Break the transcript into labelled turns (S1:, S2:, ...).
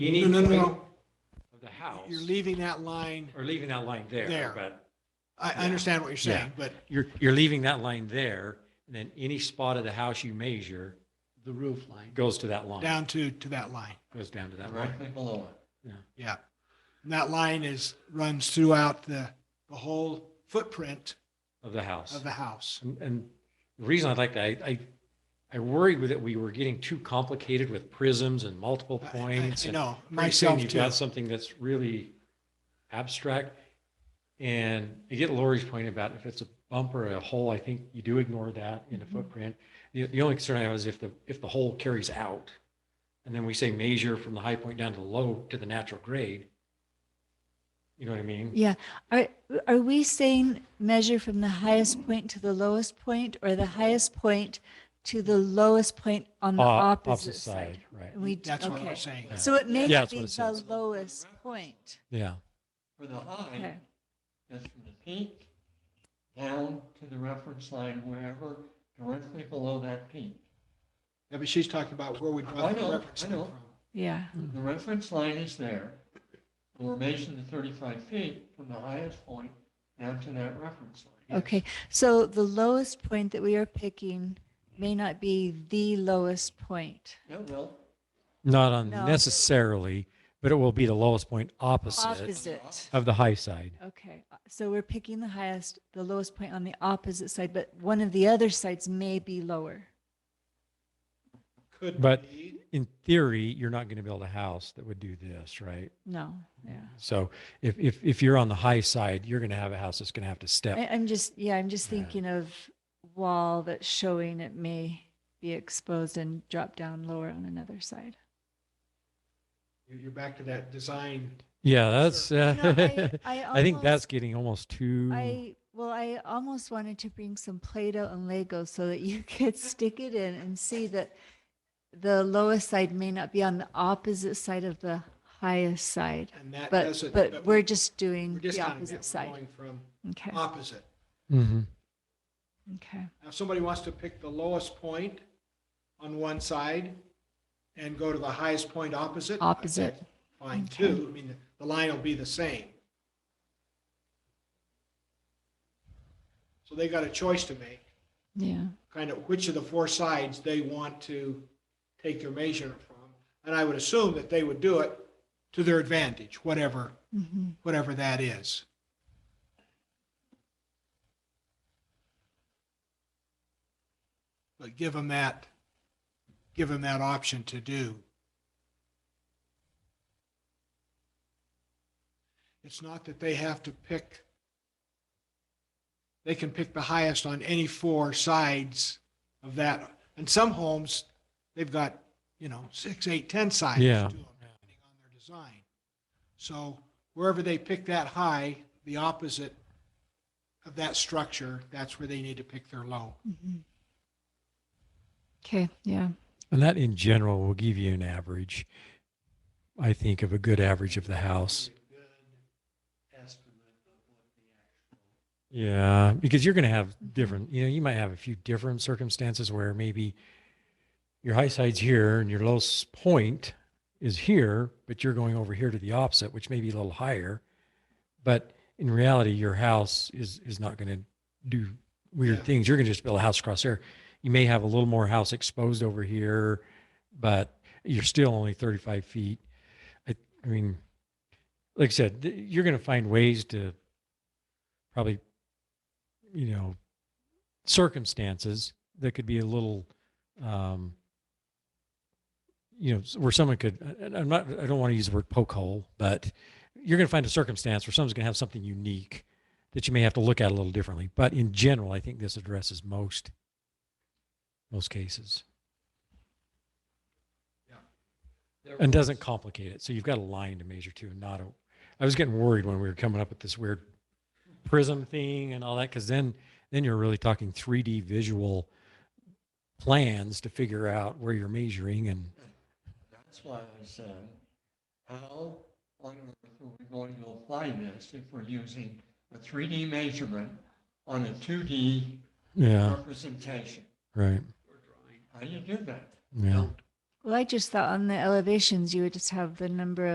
S1: You
S2: No,
S1: need.
S2: no, no,
S1: to
S2: no.
S1: of The house,
S2: You're leaving that line.
S1: or leaving that line there,
S2: There.
S1: but
S2: I,
S1: Yeah.
S2: I understand what you're
S1: Yeah.
S2: saying, but
S1: you're, you're leaving that line there. And then any spot of the house you measure
S2: the roof line
S1: goes to that line,
S2: down to, to that line.
S1: goes down to that line.
S3: directly below it.
S2: Yeah. And that line is, runs throughout the, the whole footprint
S1: of the house.
S2: of the house.
S1: And, and the reason I like that, I, I, I worried with it, we were getting too complicated with prisms and multiple
S2: I- I-
S1: points.
S2: I
S1: and
S2: know,
S1: pretty soon
S2: myself
S1: You've
S2: too.
S1: got something that's really abstract. And you get Lori's point about if it's a bump or a hole, I think you do ignore that in the
S4: Mhm.
S1: footprint. The, the only concern I have is if the, if the hole carries out. And then we say measure from the high point down to the low to the natural grade. You know what I mean?
S4: Yeah. Are, are we saying measure from the highest point to the lowest point or the highest point to the lowest point on the
S1: Uh,
S4: opposite side?
S1: Right.
S4: We,
S2: That's what
S4: okay.
S2: I'm saying.
S1: Yeah.
S4: So it may
S1: Yeah, that's
S4: be
S1: what it
S4: the
S1: says.
S4: lowest point.
S1: Yeah.
S3: For the high,
S4: Okay.
S3: is from the peak down to the reference line, wherever directly below that peak.
S2: Yeah, but she's talking about where we draw
S3: I
S2: the
S3: know,
S2: reference
S3: I
S2: line
S3: know.
S2: from.
S4: Yeah.
S3: The reference line is there. We're measuring the 35 feet from the highest point down to that reference line.
S4: Okay. So the lowest point that we are picking may not be the lowest point.
S3: Yeah, well,
S1: Not
S4: No.
S1: unnecessarily, but it will be the lowest point opposite
S4: Opposite.
S1: of the high side.
S4: Okay. So we're picking the highest, the lowest point on the opposite side, but one of the other sides may be lower.
S2: Could
S1: But-
S2: be.
S1: in theory, you're not going to build a house that would do this, right?
S4: No. Yeah.
S1: So if, if, if you're on the high side, you're going to have a house that's going to have to
S4: I,
S1: step.
S4: I'm just, yeah, I'm just
S1: Yeah.
S4: thinking of wall that's showing it may be exposed and drop down lower on another side.
S2: You're you're back to that design.
S1: Yeah, that's, uh,
S4: No, I- I
S1: I think that's
S4: almost-
S1: getting almost
S2: Hmm.
S1: too,
S4: I, well, I almost wanted to bring some Play-Doh and Lego so that you could stick it in and see that the lowest side may not be on the opposite side of the highest side.
S2: And that
S4: But,
S2: doesn't.
S4: but we're just doing
S2: we're
S4: the
S2: discounting that. We're
S4: opposite side.
S2: Going from
S4: Okay,
S2: opposite.
S1: Mhm.
S4: okay.
S2: Now, if somebody wants to pick the lowest point on one side and go to the highest point opposite.
S4: Opposite.
S2: that's Fine
S4: Okay.
S2: too. I mean, the- the line will be the same. So they got a choice to make,
S4: Yeah,
S2: kind of which of the four sides they want to take their measure from. And I would assume that they would do it to their advantage, whatever,
S4: Mhm.
S2: whatever that is. But give them that, give them that option to do. It's not that they have to pick, they can pick the highest on any four sides of that. And some homes, they've got, you know, six, eight, 10 sides to
S1: Yeah.
S2: them, depending on their design. So wherever they pick that high, the opposite of that structure, that's where they need to pick their low.
S4: Mhm. Okay, yeah.
S1: and that in general will give you an average, I think, of a good average of the house. Yeah, because you're going to have different, you know, you might have a few different circumstances where maybe your high side's here and your low s- point is here, but you're going over here to the opposite, which may be a little higher. But in reality, your house is is not going to do weird
S2: Yeah.
S1: things. You're going to just build a house across there. You may have a little more house exposed over here, but you're still only 35 feet. I, I mean, like I said, th- you're going to find ways to probably, you know, circumstances that could be a little, um, you know, s- where someone could, I- I- I'm not, I don't want to use the word poke hole, but you're going to find a circumstance where someone's going to have something unique that you may have to look at a little differently. But in general, I think this addresses most, most cases and doesn't complicate it. So you've got a line to measure to and not a, I was getting worried when we were coming up with this weird prism thing and all that. Cause then, then you're really talking 3d visual plans to figure out where you're measuring and
S3: That's why I said, how on earth are we going to apply this if we're using a 3D measurement on a 2D
S1: yeah,
S3: representation?
S1: right.
S3: How do you do that?
S1: Yeah.
S4: Well, I just thought on the elevations, you would just have the number of.